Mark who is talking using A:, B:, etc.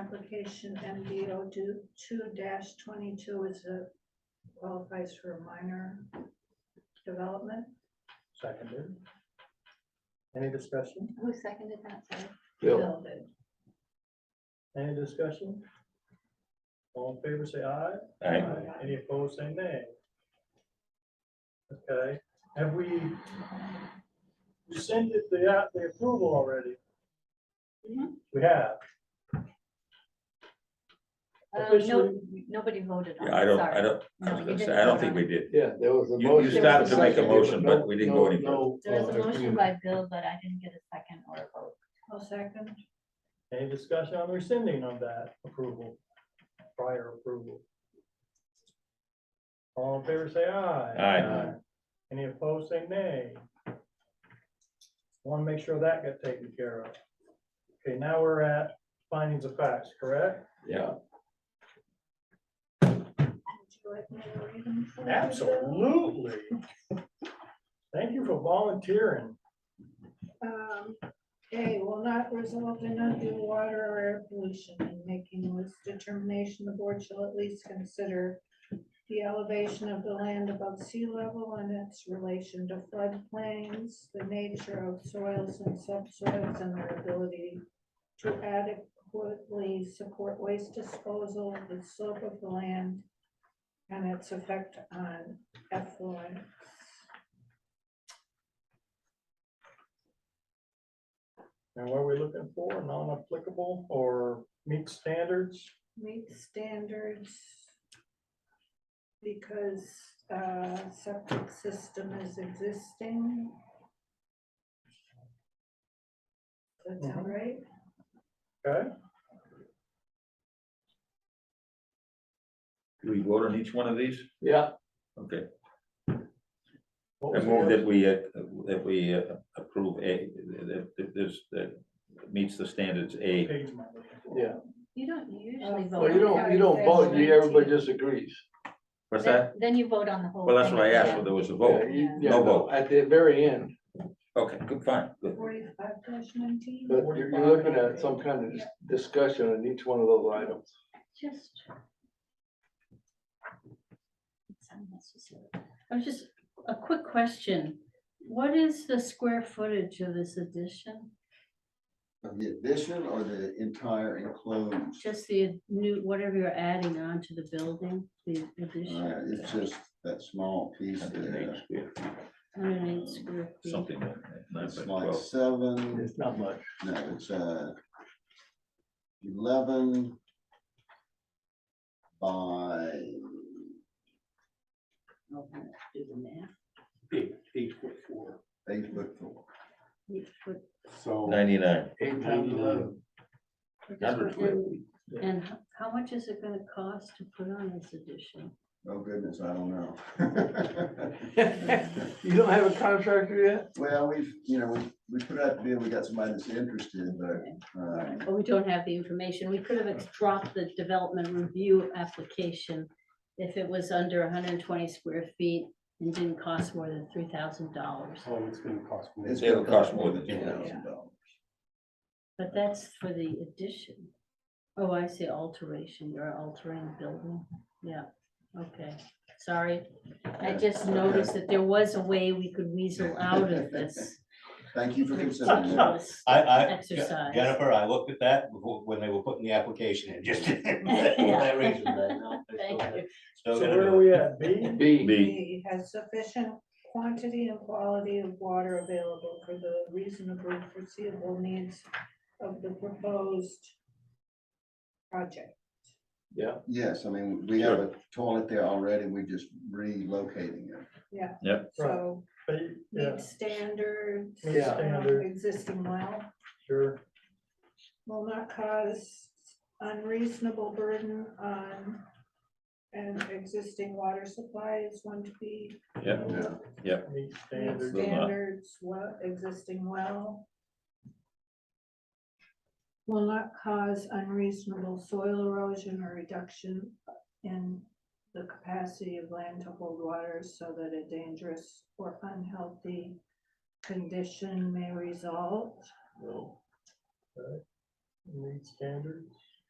A: application MDO two, twenty-two is a, qualifies for a minor development.
B: Seconded. Any discussion?
C: Who seconded that, sorry?
D: Bill,
A: Bill did.
B: Any discussion? All in favor, say aye.
D: Aye.
B: Any opposed, say nay. Okay, have we rescinded the, uh, the approval already?
C: Mhm.
B: We have.
C: Um, no,
B: Officially-
C: nobody voted on it,
E: Yeah, I don't, I
C: sorry.
E: don't, I
C: No,
E: was
C: you
E: gonna
C: didn't
E: say, I don't
C: vote
E: think
C: on it.
E: we did.
D: yeah, there was a
E: You- you
D: motion.
E: started
C: to make a
D: There was
E: motion,
D: no-
E: but we didn't
D: no-
E: go any
D: no,
C: There was
D: uh,
C: a motion
D: agreement.
C: by Bill, but I didn't get a second or a vote.
A: I'll second.
B: Any discussion on rescinding of that approval, prior approval? All in favor, say aye.
E: Aye.
B: Any opposed, say nay. Want to make sure that got taken care of. Okay, now we're at findings of facts, correct?
D: Yeah,
A: Would you like me to read them for you, Bill?
B: Absolutely. Thank you for volunteering.
A: Um, A, will not result in undue water or air pollution in making this determination, the board shall at least consider the elevation of the land above sea level and its relation to floodplains, the nature of soils and subsoils, and their ability to adequately support waste disposal, the slope of the land, and its effect on effluent.
B: And what are we looking for? Non-applicable or meet standards?
A: meet standards. Because, uh, septic system is existing. That's
B: Mm-hmm.
A: all right.
B: Okay,
E: Did we vote on each one of these?
D: yeah,
E: Okay,
B: What
E: I
B: was the
E: move
B: other-
E: that we, uh, that we uh, approve A, that, that this, that meets the standards A.
B: page am I looking for?
D: yeah.
C: You don't usually vote.
D: Well, you don't, you don't vote, you, everybody just agrees.
E: What's
C: Then-
E: that?
C: Then you vote on the whole.
E: Well, that's
C: thing
E: what I
C: at the
E: asked,
C: end.
E: if there was a
D: Yeah,
E: vote.
D: you-
C: Yeah.
D: yeah,
E: No vote.
D: At the very end,
E: Okay, good, fine, good.
A: Forty-five nineteen.
D: but you're, you're looking at some kind of dis- discussion on each one of those items.
C: Just. It's unnecessary. I was just, a quick question. What is the square footage of this addition?
F: Of the addition or the entire enclosed?
C: Just the new, whatever you're adding on to the building, the
F: Uh,
C: addition?
F: It's just that small piece there.
C: Hundred and eight square feet.
E: Something. like that, nine
F: It's
E: by
F: like
E: 12.
F: seven,
D: It's not much.
F: no, it's uh eleven by,
C: I'll have to Do the math.
G: eight, eight foot four,
F: eight foot four.
C: Eight foot
G: so.
E: Ninety-nine.
D: Eight times eleven.
E: Hundred square feet.
C: And h- how much is it gonna cost to put on this addition?
F: Oh goodness, I don't know.
D: You don't have a contractor yet?
F: Well, we've, you know, we, we put out, the bid. we got somebody that's interested, but, um,
C: Well, we don't have the information. We could have dropped the development review application if it was under hundred and twenty square feet and didn't cost more than three thousand dollars.
G: Oh, it's gonna cost more.
F: it's.
E: It'll
F: gonna cost
E: cost more than
F: two
E: you
C: know.
F: thousand dollars.
C: But that's for the addition. Oh, I see alteration. You're altering the building. Yeah, okay. Sorry. I
F: Yeah,
C: just
F: okay.
C: noticed that there was a way we could weasel out of this
F: Thank you for considering that.
C: ridiculous
G: I, I,
C: exercise.
G: Jennifer, I looked at that before, when they were putting the application in, just. for that reason, but no, they still
C: Thank
G: gotta-
C: you.
G: still
B: So
G: gotta
B: where
G: do
B: are
G: it.
B: we at? B?
D: B,
E: B,
A: B has sufficient quantity and quality of water available for the reasonable foreseeable needs of the proposed project.
D: yeah,
F: Yes, I mean, we have a toilet there already, we just relocating it.
A: So
B: B, yeah,
A: meet standards.
B: Meet
A: uh,
B: standard.
A: Existing well.
B: sure.
A: will not cause unreasonable burden on an existing water supply is one to be
E: yeah,
F: Yeah.
B: Meet
A: meet
B: standards.
E: Will not.
A: standards, well, existing well. Will not cause unreasonable soil erosion or reduction in the capacity of land to hold water so that a dangerous or unhealthy condition may result.
D: no,
B: uh, Meet standards.